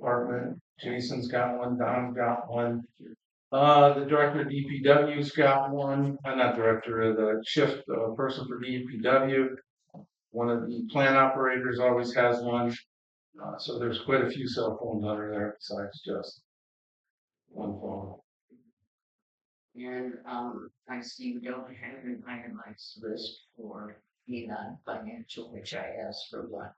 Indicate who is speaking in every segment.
Speaker 1: Department, Jason's got one, Don's got one. Uh, the director of DPW's got one, uh, not director, uh, the shift, uh, person for DPW. One of the plant operators always has one, uh, so there's quite a few cell phones under there besides just one phone.
Speaker 2: And, um, I see you don't have an itemized list for the non-financial, which I asked for one.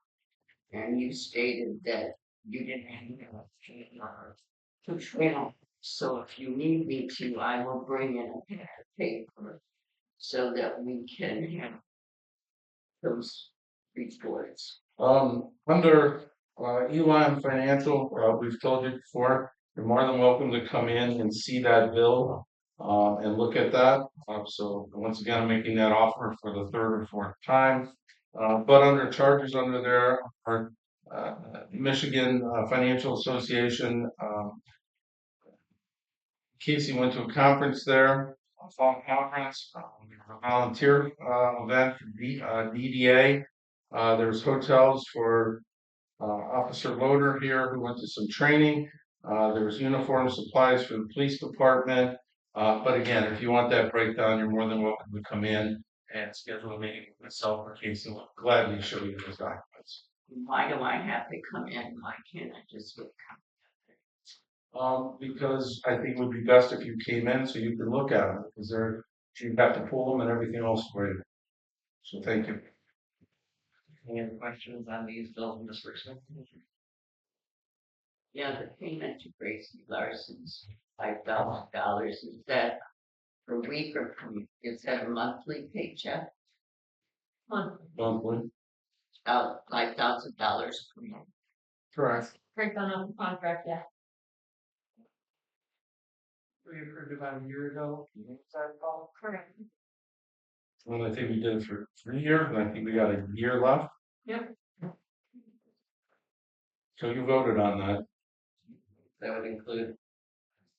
Speaker 2: And you stated that you didn't have enough to, uh, to trail. So if you need me to, I will bring in a pad of paper so that we can have those reports.
Speaker 1: Um, under, uh, Elon Financial, uh, we've told you before, you're more than welcome to come in and see that bill. Um, and look at that, um, so once again, I'm making that offer for the third or fourth time. Uh, but under charges under there are, uh, Michigan uh, Financial Association, um. Casey went to a conference there, a fall conference, um, a volunteer, uh, event for D, uh, DDA. Uh, there's hotels for uh, Officer Loader here who went to some training. Uh, there's uniform supplies for the police department. Uh, but again, if you want that breakdown, you're more than welcome to come in and schedule a meeting with myself or Casey. We'll Gladly show you those documents.
Speaker 2: Why do I have to come in? Why can't I just come?
Speaker 1: Um, because I think it would be best if you came in so you could look at them, because they're, you'd have to pull them and everything else for you. So thank you.
Speaker 2: Any other questions on these bills and disbursements? Yeah, the payment to Gracie Larson's five thousand dollars, is that per week or per, is that a monthly paycheck? Month,
Speaker 1: Monthly.
Speaker 2: uh, five thousand dollars per month.
Speaker 1: Correct.
Speaker 3: breakdown of the contract, yeah.
Speaker 2: We approved about a year ago,
Speaker 1: Mm-hmm.
Speaker 3: Correct.
Speaker 1: And I think we did it for three years, and I think we got a year left.
Speaker 3: Yep.
Speaker 1: So you voted on that.
Speaker 4: That would include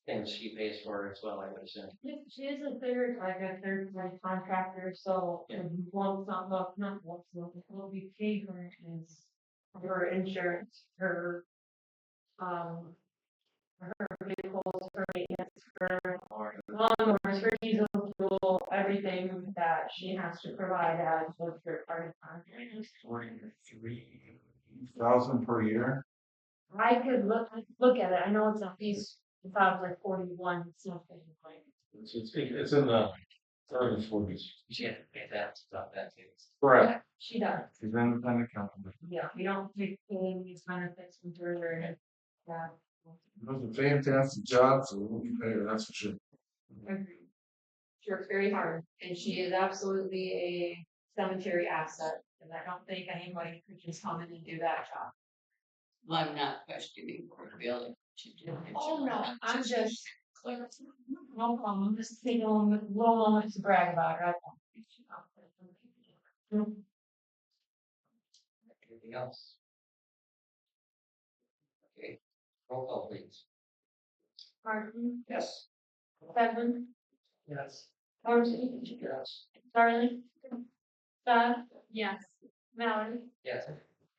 Speaker 4: things she pays for as well, I would assume.
Speaker 3: She- She is a third, like a third party contractor, so
Speaker 4: Yeah.
Speaker 3: one not well, not one will be paid for is her insurance, her um her vehicles, her maintenance, her lawnmowers, her diesel fuel, everything that she has to provide as a third party contractor.
Speaker 1: Forty-three thousand per year.
Speaker 3: I could look, I could look at it, I know it's not these, it's about like forty one something like.
Speaker 1: It's, it's, it's in the thirties, forties.
Speaker 4: She had to pay that stuff that too.
Speaker 1: Correct.
Speaker 3: She does.
Speaker 1: It's an independent company.
Speaker 3: Yeah, we don't take any of these benefits from Turner. Yeah.
Speaker 1: It was a fantastic job, so we'll be there, that's for sure.
Speaker 3: She works very hard and she is absolutely a cemetery asset. And I don't think anybody could just come in and do that job.
Speaker 2: Well, I'm not questioning her ability to do it.
Speaker 3: just. No problem, just take a moment, little moment to brag about right now.
Speaker 4: Anything else? Okay, roll call please.
Speaker 3: Martin,
Speaker 4: Yes.
Speaker 3: Bevan,
Speaker 4: Yes.
Speaker 3: Marcy,
Speaker 4: Yes.
Speaker 3: Darling, Beth. Yes. Mallory,
Speaker 4: Yes.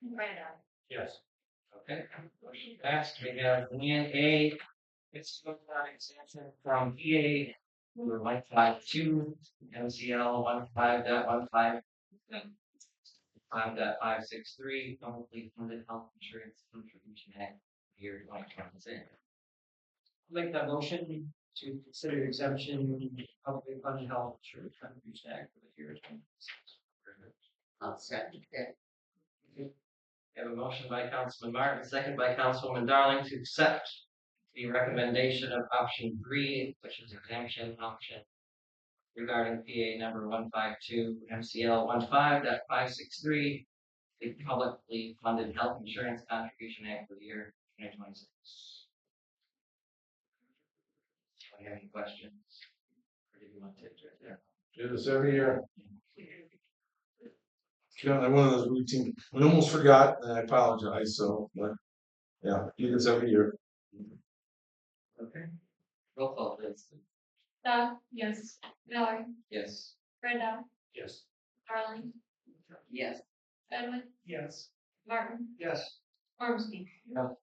Speaker 3: Brandon.
Speaker 4: Yes. Okay, motion passed. We have Leanne A. It's going on extension from EA number one five two, MCL one five dot one five. Five dot five six three, publicly funded health insurance contribution act, year twenty twenty six. Make that motion to consider exemption publicly funded health insurance contribution act for the year twenty six.
Speaker 2: I'll second that.
Speaker 4: We have a motion by Councilman Martin, second by Councilwoman Darling to accept the recommendation of option three, which is exemption option regarding PA number one five two MCL 15.563, the publicly funded health insurance contribution act for the year twenty twenty six. Do you have any questions? Or do you want to take it there?
Speaker 1: Do this every year. Yeah, one of those routine, I almost forgot, and I apologize, so, but, yeah, do this every year.
Speaker 4: Okay. Roll call please.
Speaker 3: Beth, yes. Mallory,
Speaker 4: Yes.
Speaker 3: Brandon.
Speaker 4: Yes.
Speaker 3: Darling,
Speaker 2: Yes,
Speaker 3: Edwin,
Speaker 4: Yes.
Speaker 3: Martin,
Speaker 4: Yes.
Speaker 3: Ormski.
Speaker 4: No.